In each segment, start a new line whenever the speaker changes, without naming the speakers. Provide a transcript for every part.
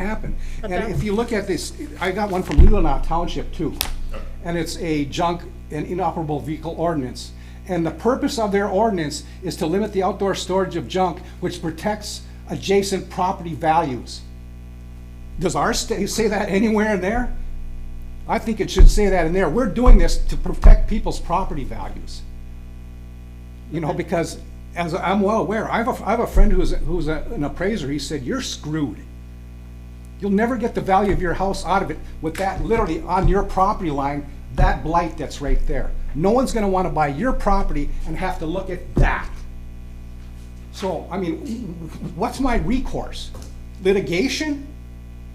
happen.
But
And
that-
if you look at this, I got one from Leelanau Township too. And it's a junk and inoperable vehicle ordinance. And the purpose of their ordinance is to limit the outdoor storage of junk, which protects adjacent property values. Does our state say that anywhere in there? I think it should say that in there. We're doing this to protect people's property values. You know, because as I'm well aware, I have a, I have a friend who's, who's a- an appraiser. He said, you're screwed. You'll never get the value of your house out of it with that literally on your property line, that blight that's right there. No one's gonna wanna buy your property and have to look at that. So, I mean, what's my recourse? Litigation?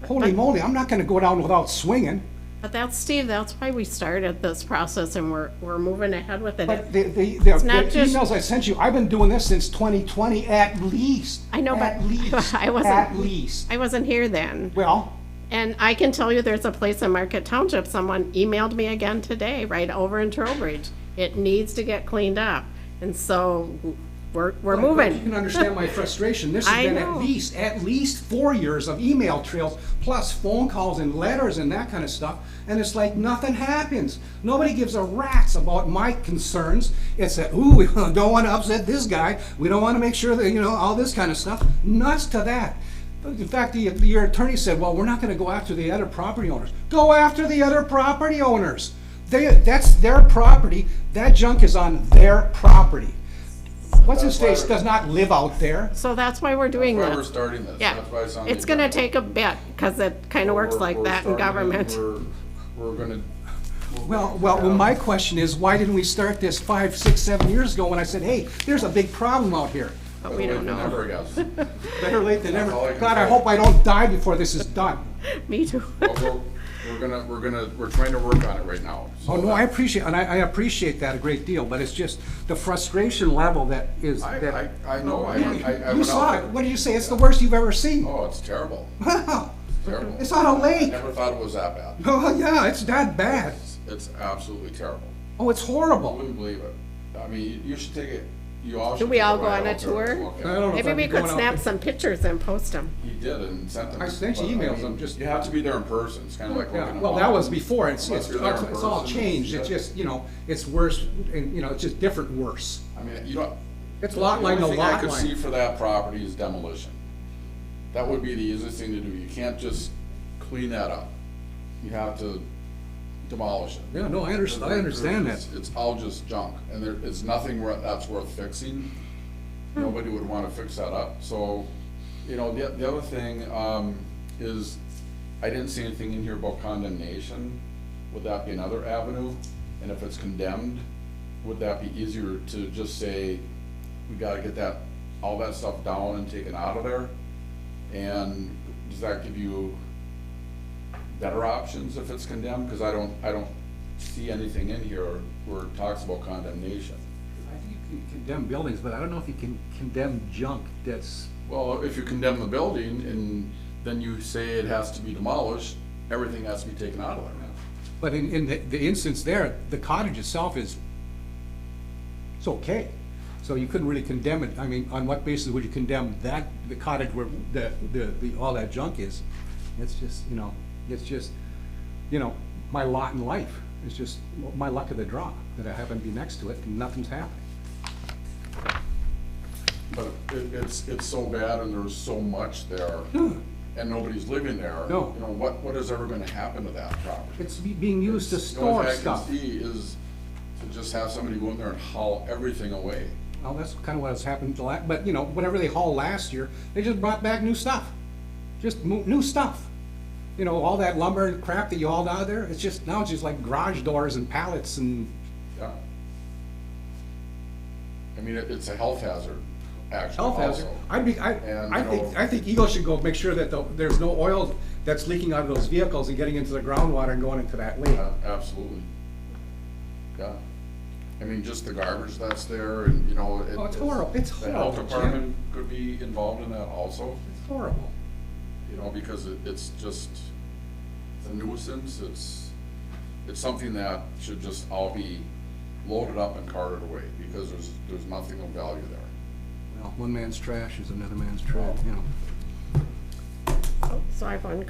Holy moly, I'm not gonna go down without swinging.
But that's, Steve, that's why we started this process and we're, we're moving ahead with
But
it.
the, the, the the
not just-
emails I sent you, I've been doing this since 2020 at least.
I know, but
At least,
I wasn't-
at least.
I wasn't here then.
Well,
And I can tell you there's a place in Market Township, someone emailed me again today, right over in Trowbridge. It needs to get cleaned up. And so we're, we're
You can
moving.
understand my frustration. This
I
has been at
know.
least, at least four years of email trails, plus phone calls and letters and that kind of stuff. And it's like nothing happens. Nobody gives a rat's about my concerns. It's that, ooh, we don't want to upset this guy. We don't want to make sure that, you know, all this kind of stuff. Nuts to that. In fact, the, the- your attorney said, well, we're not going to go after the other property owners. Go after the other property owners. They, that's their property. That junk is on their property. What's his face does not live out there.
So that's why we're doing
That's why we're
this.
starting this.
Yeah.
That's why it's on the
It's gonna
agenda.
take a bit, cause it kinda works
We're-
like
we're
that in
starting and
government.
We're, we're gonna.
Well, well, well, my question is, why didn't we start this five, six, seven years ago when I said, hey, there's a big problem out here?
But we don't know.
Never guess. But
Better late than never.
That's all I can
God, I
say.
hope I don't die before this is done.
Me too.
We're we're gonna, we're gonna, we're trying to work on it right now. So
Oh, no, I
that-
appreciate, and I, I appreciate that a great deal, but it's just the frustration level that is,
I,
that.
I, I know, I, I. I
You
went
saw
out
it.
there.
What do you say? It's the worst you've ever seen.
Oh, it's terrible,
Wow.
terrible.
It's on a lake.
Never thought it was that bad.
Oh, yeah, it's that bad.
It's- It's absolutely terrible.
Oh, it's
I
horrible.
wouldn't believe it. I mean, you- you should take it, you all should.
we
take
all go
ride
on a
out there and
tour?
look at
I
it.
don't know if
Maybe
I'd
we
be
could
going out
snap
there.
some pictures and post them.
He did and sent them.
I sent you
but, I
emails,
mean,
I'm just-
You have to be there in person. It's kind of like looking
Yeah,
at.
well, that was before, it's,
Unless
it's,
you're there in
it's all
person,
changed, it's
yeah.
just, you know, it's worse, and, you know, it's just different worse.
I mean, you don't.
It's lot line to
The only thing
lot
I could see
line.
for that property is demolition. That would be the easiest thing to do. You can't just clean that up. You have to demolish it.
Yeah, no, I understand, I understand that.
It's- It's all just junk, and there is nothing wor- that's worth fixing. Nobody would wanna fix that up, so, you know, the, the other thing, um, is, I didn't see anything in here about condemnation. Would that be another avenue? And if it's condemned, would that be easier to just say, we gotta get that, all that stuff down and taken out of there? And does that give you better options if it's condemned? Because I don't, I don't see anything in here where it talks about condemnation.
I think you can condemn buildings, but I don't know if you can condemn junk that's,
Well, if you condemn the building and then you say it has to be demolished, everything has to be taken out of there.
but in, in the, the instance there, the cottage itself is, it's okay. So you couldn't really condemn it, I mean, on what basis would you condemn that, the cottage where the, the, the, all that junk is? It's just, you know, it's just, you know, my lot in life, it's just my luck of the draw, that I happen to be next to it, and nothing's happening.
But it, it's, it's so bad and there's so much there and nobody's living there.
Hmm. No.
You know, what, what is ever gonna happen to that property?
It's be- being used to store stuff.
The only thing I can see is to just have somebody go in there and haul everything away.
Well, that's kind of what has happened to la, but you know, whatever they hauled last year, they just brought back new stuff. Just mo- new stuff. You know, all that lumber and crap that you hauled out of there, it's just, now it's just like garage doors and pallets and,
Yeah. I mean, it, it's a health hazard, actually,
Health hazard.
also.
I'd be, I,
Oh. And,
I
you
think,
know-
I think Eagle should go make sure that the- there's no oil that's leaking out of those vehicles and getting into the groundwater and going into that lake.
Yeah, absolutely. Yeah. I mean, just the garbage that's there and, you know. it-
Oh, it's horrible. It's
The health
horrible, Jim.
department could be involved in that also,
It's horrible.
you know, because it, it's just, it's a nuisance. It's, it's something that should just all be loaded up and carted away because there's, there's nothing of value there.
Well, one man's trash is another man's treasure, you know.
Oh, So I have one